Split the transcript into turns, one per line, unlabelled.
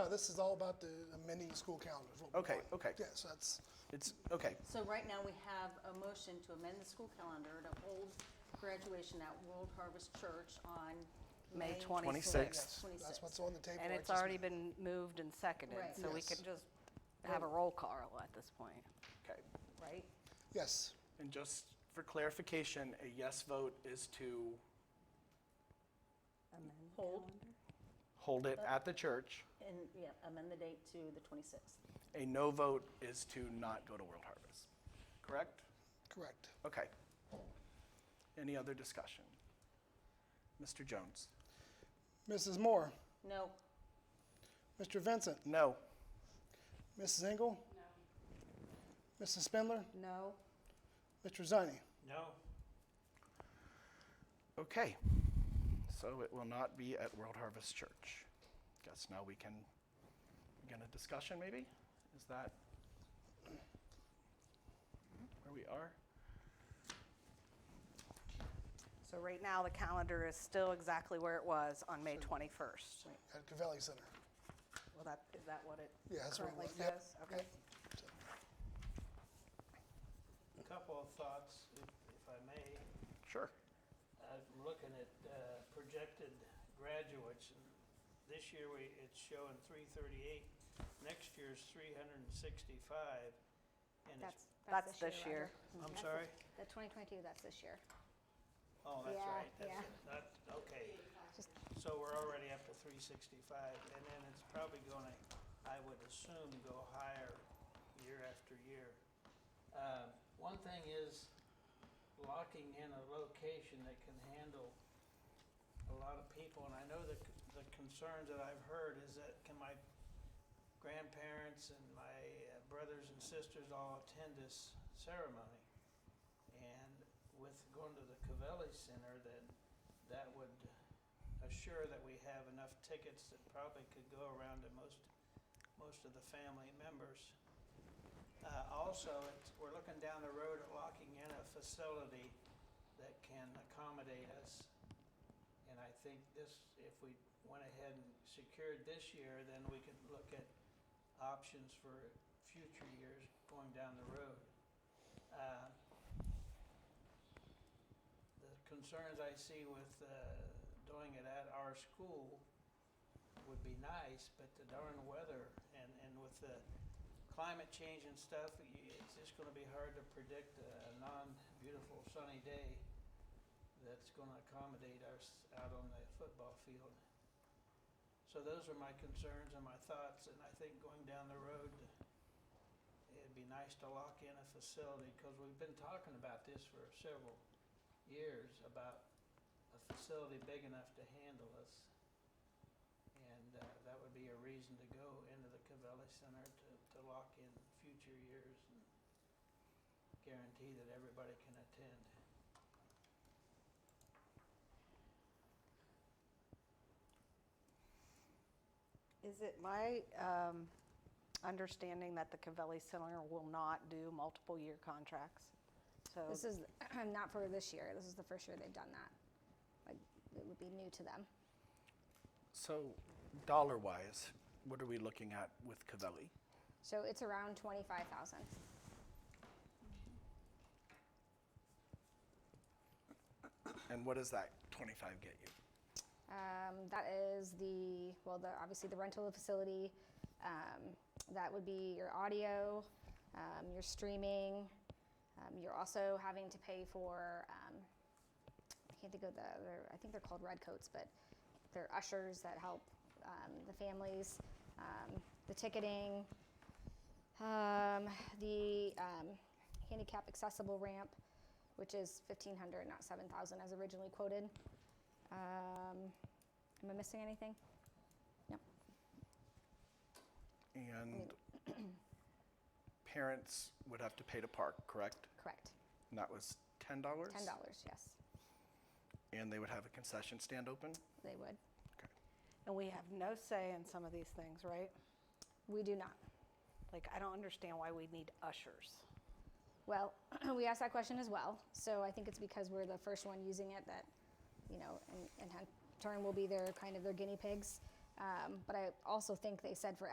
Uh, this is all about the amending school calendars. what we're
Okay,
doing.
okay.
Yes, that's,
It's, okay,
So right now, we have a motion to amend the school calendar to hold graduation at World Harvest Church on
May
May
26th.
yes, that's
26th.
what's on the table.
And
I
it's
just-
already been moved and seconded,
Right.
so we
Yes.
can just have a roll call at this point,
okay.
right?
Yes,
And just for clarification, a yes vote is to
Hold
hold it at the church.
and, yeah, amend the date to the 26th.
A no vote is to not go to World Harvest. Correct?
correct.
Okay. Any other discussion? Mr. Jones?
Mrs. Moore,
No,
Mr. Vincent,
No.
Mrs. Engel? No. Mrs. Spindler,
No.
Mr. Zani?
No.
Okay. So it will not be at World Harvest Church. Guess now we can begin a discussion, maybe? Is that where we are?
So right now, the calendar is still exactly where it was on May 21st.
At Cavelli Center.
Well, that, is that what it
Yeah, that's what it
currently
was. Yep.
says? Okay.
Couple of thoughts, if if I may.
Sure.
I'm looking at uh, projected graduates. and This year, we, it's showing 338. Next year's 365. And it's,
That's,
That's this year.
I'm sorry?
Mm-hmm. The 2022, that's this year.
Oh, that's
Yeah,
right. That's
yeah.
it. That, okay.
Just-
So we're already up to 365, and then it's probably going to, I would assume, go higher year after year. Um, One thing is locking in a location that can handle a lot of people, and I know the, c- the concerns that I've heard is that can my grandparents and my uh, brothers and sisters all attend this ceremony? And with going to the Cavelli Center, then that would assure that we have enough tickets that probably could go around to most, most of the family members. Uh, also, it's, we're looking down the road at locking in a facility that can accommodate us. And I think this, if we went ahead and secured this year, then we could look at options for future years going down the road. Uh, the concerns I see with uh, doing it at our school would be nice, but the darn weather and, and with the climate change and stuff, y- it's just gonna be hard to predict a a non-beautiful sunny day that's gonna accommodate us out on the football field. So those are my concerns and my thoughts, and I think going down the road, it'd be nice to lock in a facility, because we've been talking about this for several years about a facility big enough to handle us. And uh, that would be a reason to go into the Cavelli Center to, to lock in future years and guarantee that everybody can attend.
Is it my um, understanding that the Cavelli Center will not do multiple-year contracts? So
This is not for this year. This is the first year they've done that. Like, it would be new to them.
So dollar wise, what are we looking at with Cavelli?
So it's around 25,000.
And what does that 25 get you?
Um, that is the, well, the, obviously the rental of the facility. Um, that would be your audio, um, your streaming. Um, you're also having to pay for, um, I can't think of the, other- I think they're called redcoats, but they're ushers that help um, the families, um, the ticketing, um, the um, handicap accessible ramp, which is 1,500, not 7,000 as originally quoted. Um, am I missing anything?
And parents would have to pay to park, correct?
Correct.
And that was $10?
Ten dollars. Yes,
And they would have a concession stand open?
they would.
Okay.
And we have no say in some of these things, right?
We do not.
Like, I don't understand why we need ushers.
Well, we asked that question as well. So I think it's because we're the first one using it that, you know, and, and in turn will be their kind of their guinea pigs. Um, but I also think they said for